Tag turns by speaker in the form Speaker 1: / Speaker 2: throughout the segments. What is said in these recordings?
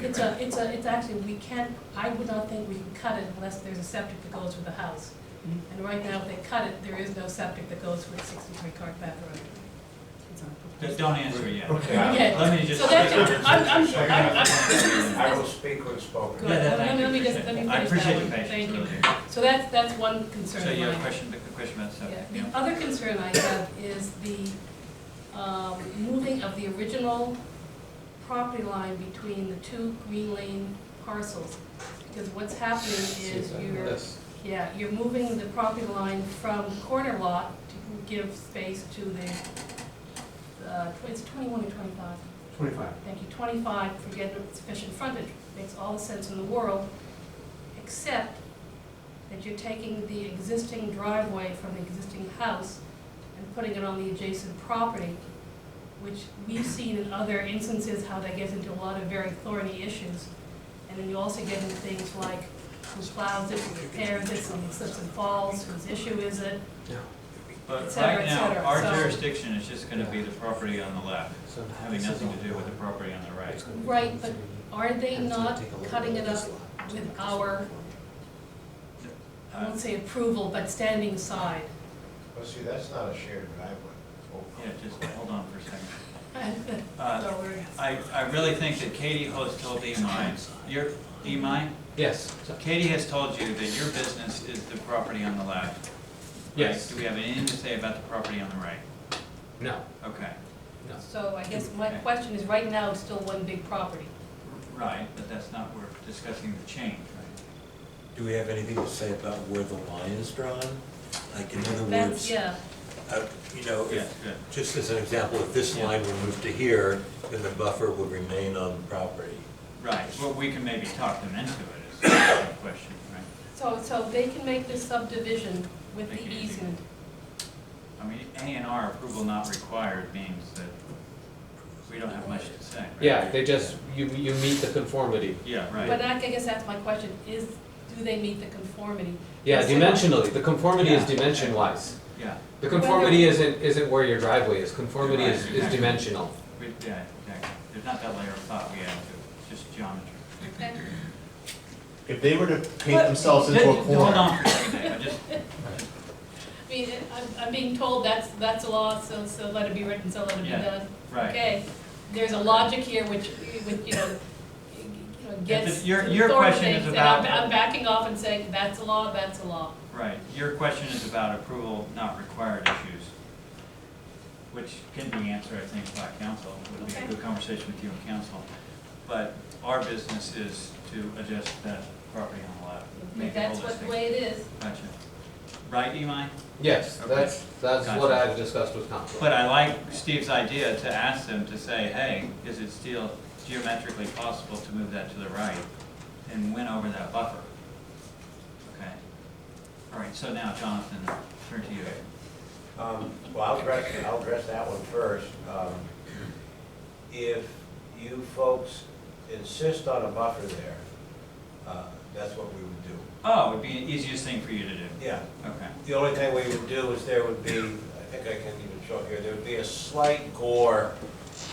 Speaker 1: It's a, it's a, it's actually, we can, I would not think we can cut it unless there's a septic that goes with the house. And right now, if they cut it, there is no septic that goes with sixty-three Cart Path Road.
Speaker 2: Don't- Don't answer yet.
Speaker 3: Okay.
Speaker 1: Okay.
Speaker 2: Let me just.
Speaker 1: So that's, I'm, I'm,
Speaker 3: Second,
Speaker 1: I'm, I'm,
Speaker 3: I will speak when spoken.
Speaker 1: Good.
Speaker 2: Yeah, that-
Speaker 1: Let me- let me just- let me
Speaker 2: I
Speaker 1: finish
Speaker 2: appreciate
Speaker 1: that
Speaker 2: your
Speaker 1: one.
Speaker 2: patience,
Speaker 1: Thank you.
Speaker 2: really.
Speaker 1: so that's, that's one concern of
Speaker 2: So
Speaker 1: mine.
Speaker 2: you have a question, a question about septic,
Speaker 1: Yeah,
Speaker 2: yeah?
Speaker 1: the other concern I have is the, um, moving of the original property line between the two Green Lane parcels. Because what's happening is you're, yeah, you're moving the property line from corner lot to give space to the, uh, tw- it's twenty-one or twenty-five?
Speaker 4: Twenty-five.
Speaker 1: Thank you, twenty-five for getting sufficient frontage, makes all the sense in the world, except that you're taking the existing driveway from the existing house and putting it on the adjacent property, which we've seen in other instances how that gets into a lot of very thorny issues. And then you also get into things like who plows it, who repairs it, someone slips and falls, whose issue is it? Et
Speaker 2: But
Speaker 1: cetera,
Speaker 2: right
Speaker 1: et
Speaker 2: now,
Speaker 1: cetera.
Speaker 2: our
Speaker 1: So-
Speaker 2: jurisdiction is just gonna be the property on the left, having nothing to do with the property on the right.
Speaker 1: Right, but Are they not cutting it up with our, I
Speaker 2: Uh,
Speaker 1: won't say approval, but standing aside?
Speaker 3: Well, see, that's not a shared driveway. Oh,
Speaker 2: Yeah, just hold on for a second. Uh, I, I really think that Katie has told Imai, your, Imai,
Speaker 5: Yes,
Speaker 2: Katie has told you that your business is the property on the left. right?
Speaker 5: Yes.
Speaker 2: Do we have anything to say about the property on the right?
Speaker 5: no,
Speaker 2: Okay,
Speaker 5: no.
Speaker 1: So I guess my question is, right now, it's still one big property.
Speaker 2: right, but that's not, we're discussing the change, right?
Speaker 6: Do we have anything to say about where the line is drawn? Like, in other
Speaker 1: That's,
Speaker 6: words,
Speaker 1: yeah,
Speaker 6: uh, you know,
Speaker 2: Yeah,
Speaker 6: if-
Speaker 2: good.
Speaker 6: just as an example, if this
Speaker 2: Yeah.
Speaker 6: line were moved to here, then the buffer would remain on the property.
Speaker 2: Right, well, we can maybe talk them into it, is the question, right?
Speaker 1: so, so they can make this subdivision with the easement.
Speaker 2: I mean, A and R approval not required means that we don't have much to say, right?
Speaker 5: Yeah, they just, you, you meet the conformity.
Speaker 2: Yeah,
Speaker 1: But
Speaker 2: right,
Speaker 1: I I guess that's my question, is, do they meet the conformity?
Speaker 5: Yeah,
Speaker 1: Yes, they-
Speaker 5: dimensionally, the conformity is
Speaker 2: Yeah.
Speaker 5: dimension wise.
Speaker 2: yeah,
Speaker 5: The conformity isn't, isn't where your driveway is, conformity is,
Speaker 2: Right.
Speaker 5: is dimensional.
Speaker 2: we, yeah, exactly. There's not that layer of thought we have to, just geometry.
Speaker 1: Okay.
Speaker 7: If they were to paint
Speaker 1: But-
Speaker 7: themselves into a corner.
Speaker 2: Hold on for a second, Dave, I just,
Speaker 1: I mean, I'm, I'm being told that's, that's a law, so, so let it be written, so let it be
Speaker 2: Yeah.
Speaker 1: done.
Speaker 2: right.
Speaker 1: Okay, there's a logic here which, which, you know, you know, gets
Speaker 2: Your-
Speaker 1: to
Speaker 2: your
Speaker 1: the thorn
Speaker 2: question is
Speaker 1: things, and I'm,
Speaker 2: about-
Speaker 1: I'm backing off and saying, that's a law, that's a law.
Speaker 2: Right, your question is about approval not required issues, which can be answered, I think, by council, would be a
Speaker 1: Okay.
Speaker 2: good conversation with you and council. But our business is to adjust that property on the lot. make it
Speaker 1: That's what, the
Speaker 2: holistic.
Speaker 1: way it is.
Speaker 2: Gotcha. Right, Imai?
Speaker 5: Yes,
Speaker 2: Okay.
Speaker 5: that's, that's what
Speaker 2: Gotcha.
Speaker 5: I've discussed with council.
Speaker 2: But I like Steve's idea to ask them to say, hey, is it still geometrically possible to move that to the right? And win over that buffer. Okay. All right, so now Jonathan, turn to you.
Speaker 3: Um, Well, I'll address, I'll address that one first. Um, If you folks insist on a buffer there, uh, that's what we would do.
Speaker 2: Oh, it'd be the easiest thing for you to do.
Speaker 3: Yeah,
Speaker 2: Okay,
Speaker 3: the only thing we would do is there would be, I think I can even show it here, there would be a slight gore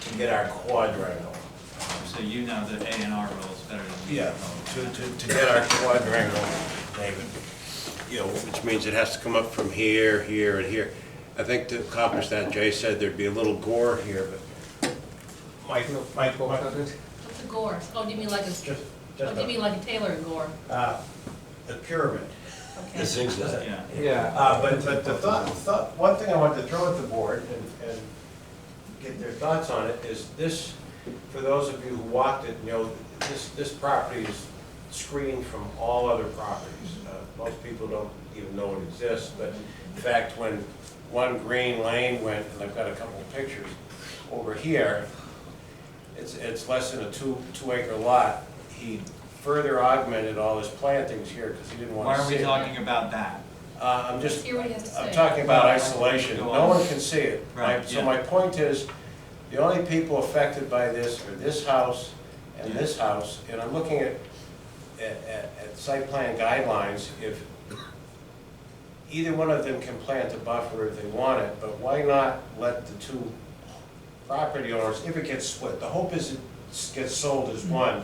Speaker 3: to get our quadrangle.
Speaker 2: so you know the A and R rules better than we do.
Speaker 7: Yeah,
Speaker 2: probably.
Speaker 7: to, to, to get our quadrangle, David.
Speaker 8: you know, which means it has to come up from here, here, and here. I think to accomplish that, Jay said there'd be a little gore here, but
Speaker 3: Mike, Mike, Mike,
Speaker 1: What's a gore? Oh, do you mean like a,
Speaker 3: just,
Speaker 1: oh,
Speaker 3: just,
Speaker 1: do you mean like a Taylor gore?
Speaker 3: a- uh, the pyramid.
Speaker 1: Okay.
Speaker 6: The zigzag.
Speaker 2: Yeah,
Speaker 5: Yeah.
Speaker 3: Uh, but, but the thought, thought, one thing I wanted to throw at the board and, and get their thoughts on it is this, for those of you who walked it, you know, this, this property is screened from all other properties. Uh, Most people don't even know it exists, but in fact, when one green lane went, and I've got a couple of pictures over here, it's, it's less than a two, two acre lot. He further augmented all his plantings here because he didn't
Speaker 2: why
Speaker 3: want to
Speaker 2: are
Speaker 3: see
Speaker 2: we
Speaker 3: it.
Speaker 2: talking about that?
Speaker 3: Uh, I'm just,
Speaker 1: Hear what he has to say.
Speaker 3: I'm talking about isolation, no one can see it.
Speaker 2: Right,
Speaker 3: My- So
Speaker 2: yeah.
Speaker 3: my point is, the only people affected by this are this house and this house, and I'm looking at, at, at at site plan guidelines, if either one of them can plant a buffer if they want it, but why not let the
Speaker 1: Mm-hmm.
Speaker 3: two property owners, if it gets split, the hope is it gets sold as one,